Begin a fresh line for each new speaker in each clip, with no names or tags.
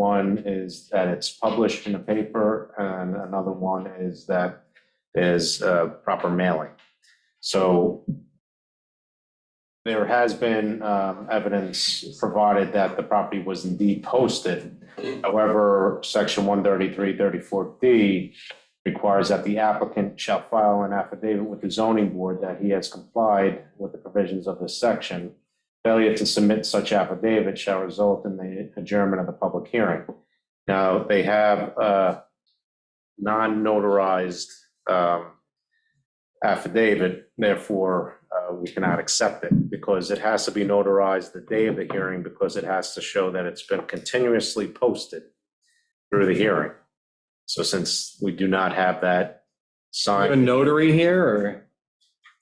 One is that it's published in the paper, and another one is that there's uh, proper mailing. So there has been um, evidence provided that the property was indeed posted. However, section 133, 34D requires that the applicant shall file an affidavit with the zoning board that he has complied with the provisions of this section. Failure to submit such affidavit shall result in the adjournment of the public hearing. Now, they have a non-notarized um, affidavit, therefore, uh, we cannot accept it because it has to be notarized the day of the hearing because it has to show that it's been continuously posted through the hearing. So since we do not have that
A
signed,
notary here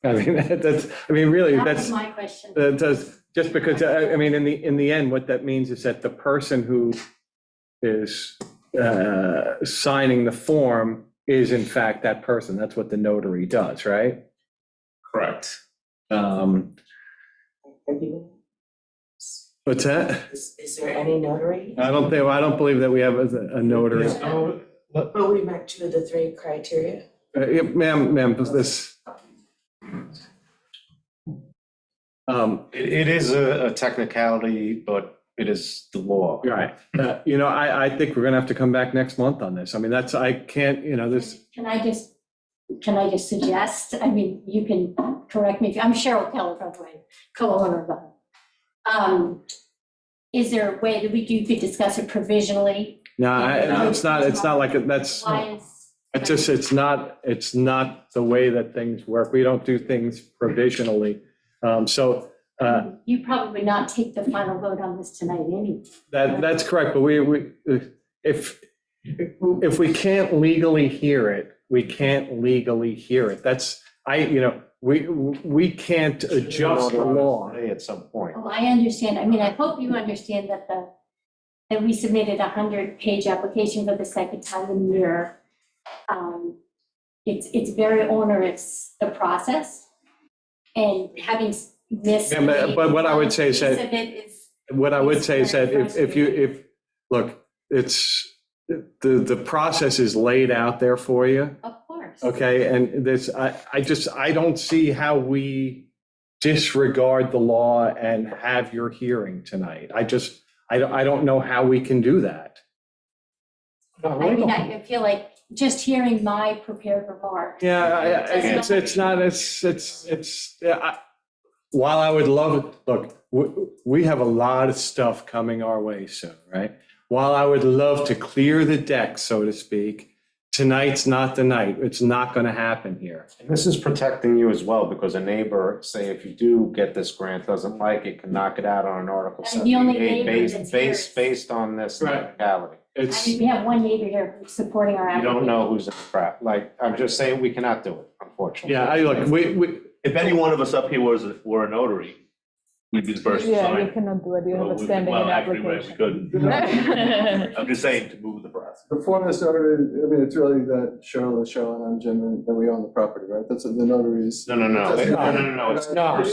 or? I mean, that's, I mean, really,
That was
that's,
my question.
that does, just because, I, I mean, in the, in the end, what that means is that the person who is uh, signing the form is in fact that person. That's what the notary does, right?
correct.
Um,
Have you-
What's that?
Is, is there any notary?
I don't think, I don't believe that we have a a notary.
Oh, But we met two of the three criteria.
Uh, yeah, Ma'am, ma'am, does this? Um,
It, it is a a technicality, but it is the law.
Right. Uh, You know, I, I think we're going to have to come back next month on this. I mean, that's, I can't, you know, this,
Can I just, can I just suggest, I mean, you can correct me, if I'm Cheryl Keller, by the way, co-owner of the. Um, Is there a way that we, you could discuss it provisionally?
no, I- it's not, it's not like, it- that's,
Why is?
it's just, it's not, it's not the way that things work. We don't do things provisionally. Um, So uh,
You probably would not take the final vote on this tonight anyway.
that, that's correct, but we, we, if, if we can't legally hear it, we can't legally hear it. That's, I, you know, we, we can't adjust the law.
At some point.
Well, I understand, I mean, I hope you understand that the, that we submitted a hundred-page application for the second time in a year. Um, It's, it's very onerous, the process, and having s- missed.
Yeah, but- but what I would say is that-
Piece of it is-
What I would
It's
say is
very
that if, if you, if, look, it's, the, the process is laid out there for you,
Of course.
okay? And this, I, I just, I don't see how we disregard the law and have your hearing tonight. I just, I don't, I don't know how we can do that.
I mean, I I feel like just hearing my prepared remarks.
Yeah, I- I- it's, it's not, it's, it's, it's, yeah, I- while I would love, look, we, we have a lot of stuff coming our way soon, right? While I would love to clear the deck, so to speak, tonight's not the night. It's not going to happen here.
And this is protecting you as well, because a neighbor, say if you do get this grant, doesn't like it, can knock it out on an Article
And the only
seventy-eight
neighbor
based,
that's
based,
here
based on this
Right.
technicality.
I
It's,
mean, we have one neighbor here who's supporting our
You
application.
don't know who's in the crap, like, I'm just saying, we cannot do it, unfortunately.
yeah, I look, we, we,
If any one of us up here was, were a notary, we'd be the first to
Yeah, you
sign.
cannot do it, you
Well,
have a
we-
standing
well,
in
actually, right, we
application.
couldn't. I'm just saying to move the process.
The form that's notarized, I mean, it's really that Cheryl is Cheryl and I'm Jim and that we own the property, right? That's what the notaries.
No, no, no,
That's-
no, no, no, no, it's,
No.
no,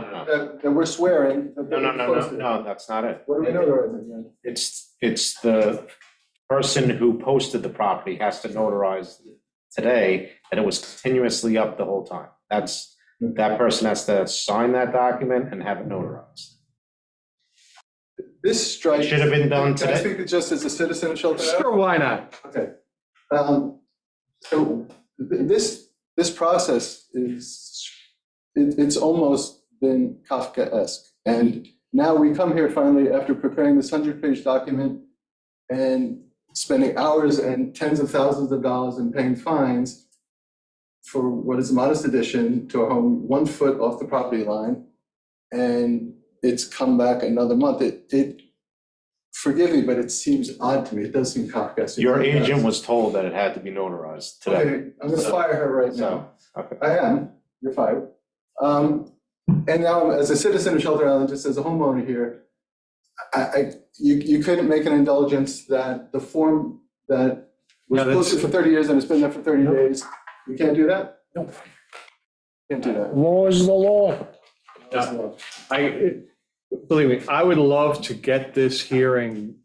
no, no,
That, that we're swearing. that
no, no,
they're
no, no,
posted.
no, that's not it.
What are we notarizing then?
It's, it's the person who posted the property has to notarize today that it was continuously up the whole time. That's,
Hmm.
that person has to sign that document and have it notarized.
This strikes.
Should have been done
Can I
today.
speak to just as a citizen of Shelter Island?
sure, why not?
Okay. Um, So th- this, this process is, it- it's almost been Kafkaesque. And now we come here finally after preparing this 100-page document and spending hours and tens of thousands of dollars and paying fines for what is a modest addition to a home one foot off the property line. And it's come back another month. It, it, forgive me, but it seems odd to me. It does seem Kafkaesque.
Your agent was told that it had to be notarized today.
Okay, I'm gonna fire her right now.
So, okay.
I am, you're fired. Um, and now, as a citizen of Shelter Island, just as a homeowner here, I, I, you, you couldn't make an indulgence that the form that was
No, that's-
posted for thirty years and it's been there for thirty days, you can't do that?
No.
Can't do that.
Law is the law.
No. I, believe me, I would love to get this hearing